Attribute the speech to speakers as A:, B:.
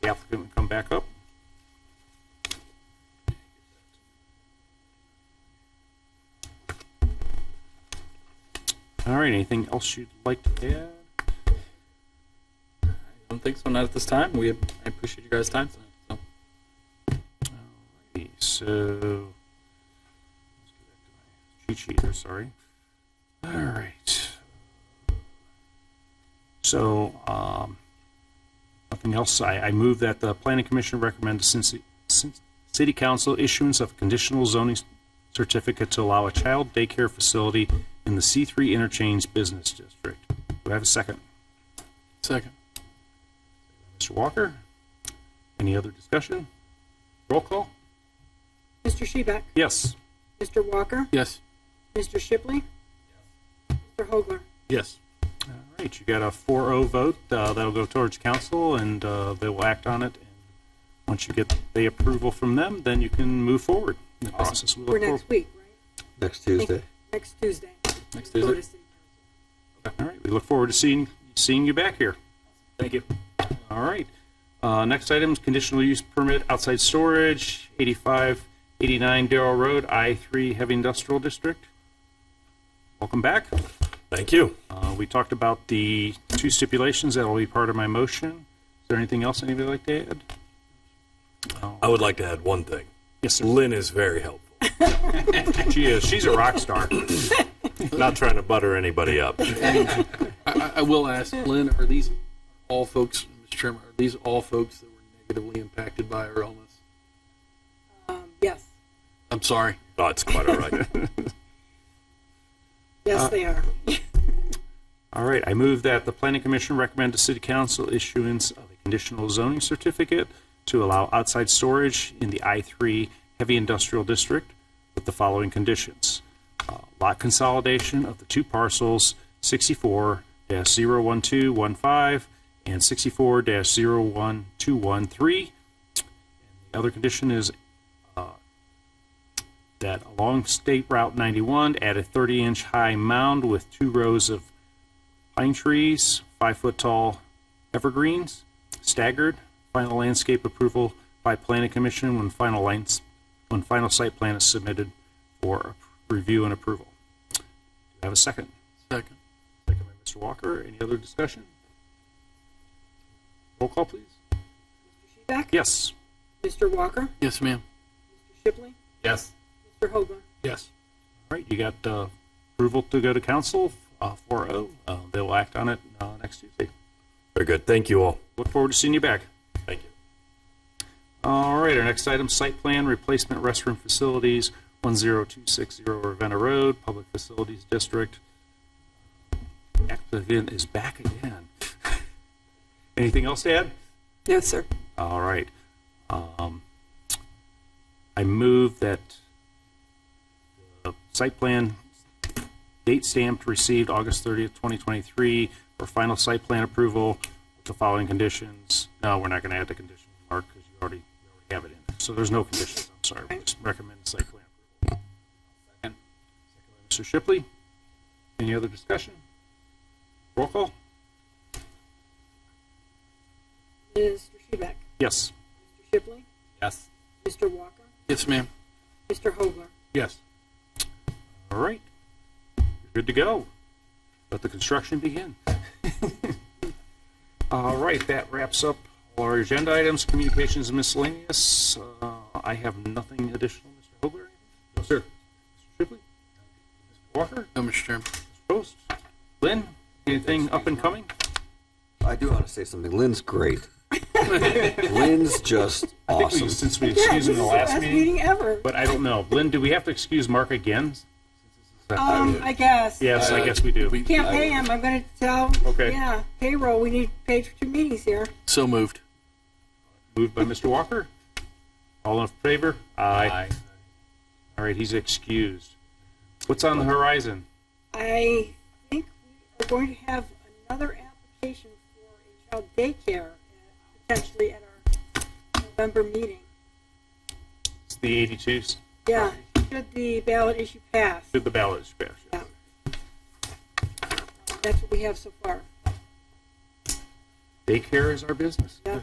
A: the applicant would come back up. All right, anything else you'd like to add?
B: I don't think so. Not at this time. We I appreciate you guys' time tonight. So.
A: Okay, So, let's go back to my cheat sheet here, sorry. All right. So, um, nothing else. I, I move that the planning commission recommend to Cincy, Cin- city council issuance of conditional zoning certificate to allow a child daycare facility in the C3 interchange business district. Do I have a second?
B: Second.
A: Mr. Walker? Any other discussion? Roll call?
C: Mr. Shebeck?
A: Yes.
C: Mr. Walker?
B: Yes.
C: Mr. Shipley? Mr. Hogler?
B: Yes.
A: All right, you got a 4-0 vote. uh, That'll go towards council, and uh, they will act on it. And Once you get the approval from them, then you can move forward in the process. We
C: For
A: look forward-
C: next week, right?
D: Next Tuesday.
C: Next Tuesday.
B: Next
C: Go to
B: Tuesday.
C: city council.
A: All right, we look forward to seeing, seeing you back here.
B: Thank you.
A: All right. Uh, Next item is conditional use permit outside storage, 8589 Darrell Road, I-3 Heavy Industrial District. Welcome back.
E: Thank you.
A: Uh, We talked about the two stipulations that'll be part of my motion. Is there anything else anybody would like to add?
E: I would like to add one thing.
A: Yes, sir.
E: Lynn is very helpful.
A: She is. She's a rock star.
E: Not trying to butter anybody up.
F: I, I- I will ask, Lynn, are these all folks, Mr. Chairman, are these all folks that were negatively impacted by our illness?
C: Um, Yes,
F: I'm sorry.
E: Oh, it's quite all right.
C: yes, they are.
A: All right, I move that the planning commission recommend to city council issuance of a conditional zoning certificate to allow outside storage in the I-3 heavy industrial district with the following conditions. Uh, Lot consolidation of the two parcels 64-01215 and 64-01213. The other condition is uh, that along State Route 91, add a 30-inch high mound with two rows of pine trees, five-foot-tall evergreens, staggered. Final landscape approval by planning commission when final lines, when final site plan is submitted for review and approval. Do I have a second?
F: Second.
A: Second by Mr. Walker. Any other discussion? Roll call, please.
C: Shebeck?
A: Yes.
C: Mr. Walker?
F: Yes, ma'am.
C: Mr. Shipley?
B: Yes.
C: Mr. Hogler?
F: Yes.
A: All right, you got uh, approval to go to council, uh, 4-0. Uh, They will act on it uh, next Tuesday.
E: Very good. Thank you all.
A: Look forward to seeing you back.
E: Thank you.
A: All right, our next item, site plan replacement restroom facilities, 10260 Ravenna Road, Public Facilities District. Applicant is back again. Anything else to add?
C: No, sir.
A: All right. Um, I move that the site plan date stamped received August 30th, 2023 for final site plan approval with the following conditions. No, we're not going to add the condition, Mark, because you already, you already have it in there. So there's no conditions. I'm sorry. We just recommend the site plan approval. Second. Mr. Shipley, any other discussion? Roll call?
C: Mr. Shebeck?
A: Yes.
C: Mr. Shipley?
B: Yes.
C: Mr. Walker?
F: Yes, ma'am.
C: Mr. Hogler?
A: Yes. All right. You're good to go. Let the construction begin. All right, that wraps up all our agenda items, communications and miscellaneous. Uh, I have nothing additional, Mr. Hogler. No, sir. Mr. Shipley? Mr. Walker?
F: No, Mr. Chairman.
A: Mr. Post? Lynn? Anything up and coming?
D: I do want to say something. Lynn's great. Lynn's just
A: I think we,
D: awesome.
A: since we
C: Yeah,
A: excused him
C: this
A: the
C: is
A: last meeting,
C: Meeting ever.
A: but I don't know. Lynn, do we have to excuse Mark again?
C: Um, I guess.
A: Yes, I guess we do.
C: Can't pay him, I'm gonna tell,
A: Okay.
C: yeah, payroll, we need paid for two meetings here.
F: So moved.
A: Moved by Mr. Walker. All in favor? Aye. All right, he's excused. What's on the horizon?
C: I think we are going to have another application for a child daycare uh, potentially at our November meeting.
A: It's the 82s.
C: Yeah, should the ballot issue pass,
A: Did the ballot is passed.
C: Yeah. that's what we have so far.
A: Daycare is our business.
C: Yeah.